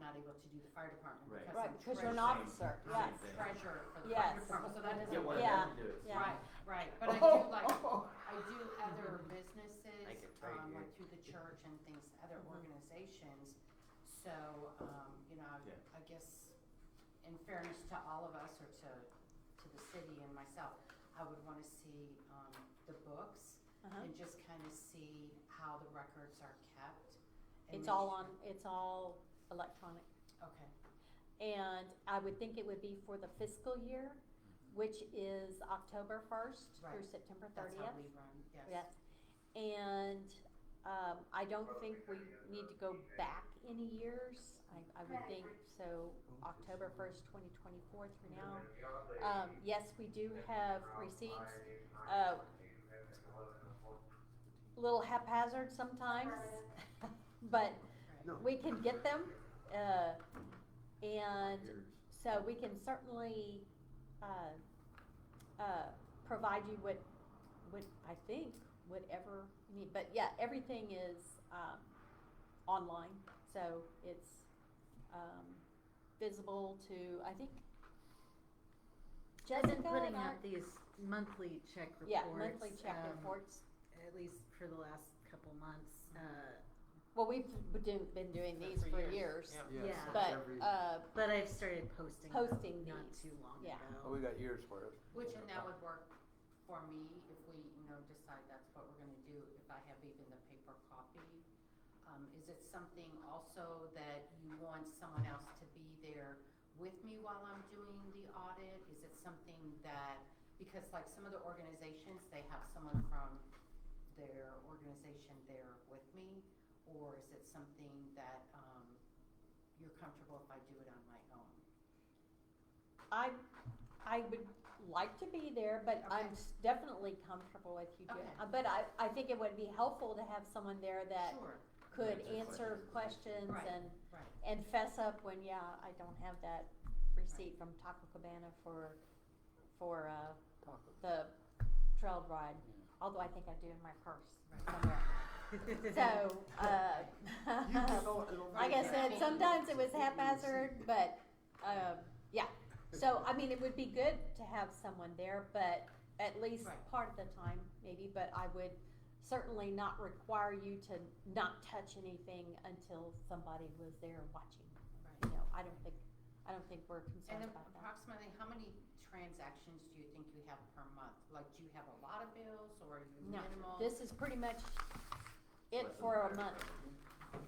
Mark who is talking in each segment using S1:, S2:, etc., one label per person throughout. S1: not able to do the fire department
S2: Right.
S1: because
S3: Right,
S1: I'm
S3: because you're an
S1: treasurer.
S3: officer,
S2: Same
S3: yes.
S2: thing.
S1: Treasurer for the
S3: Yes.
S1: fire department, so that doesn't.
S2: Get one of
S3: Yeah,
S2: them to do it.
S3: yeah. Oh.
S1: Right, right, but I do like, I do other businesses,
S4: Make it right
S1: um, like
S4: here.
S1: through the church and things, other
S3: Mhm.
S1: organizations. So, um, you know, I-
S2: Yeah.
S1: I guess in fairness to all of us or to, to the city and myself, I would wanna see, um, the books
S3: Uh-huh.
S1: and just kinda see how the records are kept. and
S3: It's
S1: make
S3: all
S1: sure-
S3: on, it's all electronic.
S1: Okay,
S3: And I would think it would be for the fiscal year, which is October first through
S1: Right.
S3: September
S1: that's
S3: thirtieth.
S1: how we run, yes.
S3: Yes. And, um, I don't think we need to go back any years. I, I would think, so October first, twenty twenty-four through now. Um, yes, we do have receipts, uh, little haphazard sometimes, but
S1: Right.
S3: we can get them, uh, and so we can certainly, uh, uh, provide you with, with, I think, whatever you need, but yeah, everything is, um, online, so it's, um, visible to, I think,
S5: I've been
S3: Jessica
S5: putting
S3: and I-
S5: out these monthly check reports.
S3: yeah, monthly check
S5: um,
S3: reports.
S5: At least for the last couple months, uh,
S3: Well, we've do- been doing
S1: For
S3: these for
S1: years.
S3: years,
S5: Yeah.
S4: so
S3: but,
S4: every-
S3: uh,
S5: but I've started posting. them
S3: Posting
S5: Not
S3: these,
S5: too long
S3: yeah.
S4: Oh,
S5: ago.
S4: we got years for it.
S1: Which, and that would work for me if we, you know, decide that's what we're gonna do, if I have even the paper copy. Um, is it something also that you want someone else to be there with me while I'm doing the audit? Is it something that, because like some of the organizations, they have someone from their organization there with me? Or is it something that, um, you're comfortable if I do it on my own?
S3: I, I would like to be there, but I'm
S1: Okay.
S3: s- definitely comfortable with you doing.
S1: Okay.
S3: uh, But I, I think it would be helpful to have someone there that
S1: Sure,
S3: could
S2: Answer
S3: answer questions
S1: Right.
S3: and,
S1: right.
S3: and fess up when, yeah, I don't have that receipt from Taco Cabana for, for, uh, the trail ride, although I think I do in my purse
S1: Right.
S3: somewhere. So, uh. Like I said, sometimes it was haphazard, but, um, yeah. So, I mean, it would be good to have someone there, but at least
S1: Right.
S3: part of the time, maybe, but I would certainly not require you to not touch anything until somebody was there watching.
S1: Right.
S3: You know, I don't think, I don't think we're
S1: And
S3: concerned about that.
S1: approximately, how many transactions do you think you have per month? Like, do you have a lot of bills or are you
S3: No,
S1: minimal?
S3: This is pretty much
S2: Less
S3: it
S2: than
S3: for a
S2: five.
S3: month.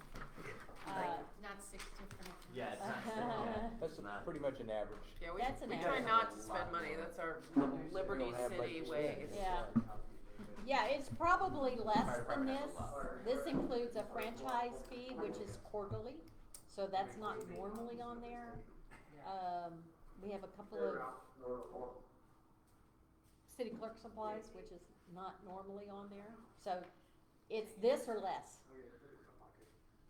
S3: Uh,
S1: Like, Not six different accounts?
S2: Yeah, it's not,
S3: Uh-huh.
S2: yeah,
S4: That's
S2: it's not.
S4: pretty much an average.
S6: Yeah, we,
S3: That's an
S6: we try
S3: average.
S6: not to spend money. That's our Liberty
S4: We don't have
S6: City
S4: much to
S6: way.
S4: spend.
S3: Yeah. Yeah, it's probably less than this. This includes a franchise fee, which is quarterly, so that's not normally on there.
S1: Yeah.
S3: Um, we have a couple of city clerk supplies, which is not normally on there, so it's this or less.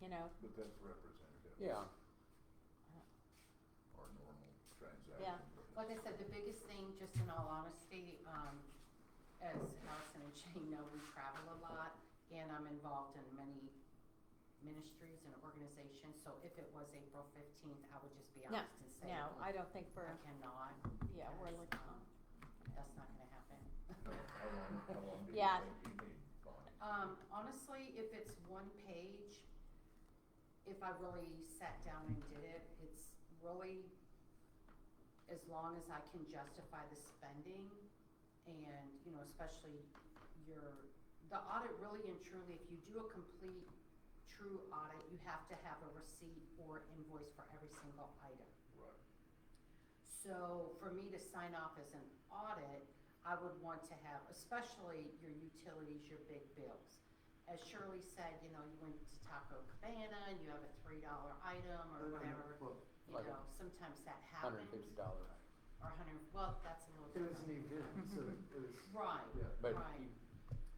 S3: You know,
S7: But that's representative.
S4: Yeah,
S7: Or normal transaction.
S3: Yeah.
S1: Like I said, the biggest thing, just in all honesty, um, as Allison and Shane know, we travel a lot and I'm involved in many ministries and organizations. So if it was April fifteenth, I would just be
S3: No,
S1: honest and say,
S3: no,
S1: I
S3: I don't think we're,
S1: cannot,
S3: yeah, we're looking on.
S1: that's not gonna happen.
S7: How long, how long do you
S3: Yeah.
S7: think you need, Bonnie?
S1: Um, honestly, if it's one page, if I really sat down and did it, it's really as long as I can justify the spending and, you know, especially your, the audit really and truly, if you do a complete, true audit, you have to have a receipt or invoice for every single item.
S7: Right.
S1: So for me to sign off as an audit, I would want to have, especially your utilities, your big bills. As Shirley said, you know, you went to Taco Cabana and you have a three dollar item or whatever, you
S4: Like a
S1: know, sometimes that
S4: Mm-hmm. hundred and fifty
S1: happens. Or
S4: dollar,
S1: a hundred, well, that's a little
S8: It was an
S1: different.
S8: event, so it was.
S1: Right,
S4: but
S1: Right.
S4: you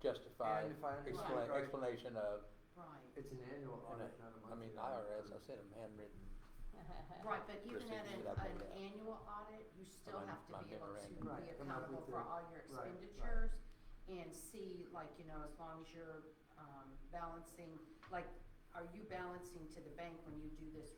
S4: justify,
S8: And if I understand
S4: explain,
S8: right,
S4: explanation of,
S1: right,
S8: It's an annual
S4: and
S8: audit, not a
S4: I
S8: monthly.
S4: mean,
S8: audit.
S4: IRS, I sent them handwritten,
S1: right, but even at an,
S4: Procedures that I've
S1: an
S4: been at.
S1: annual audit, you still
S4: Mine-
S1: have to
S4: mine
S1: be able
S4: never
S1: to
S4: end.
S1: be
S8: Right, come up
S1: accountable
S8: with
S1: for
S8: the-
S1: all your
S8: right, right.
S1: expenditures and see, like, you know, as long as you're, um, balancing, like, are you balancing to the bank when you do this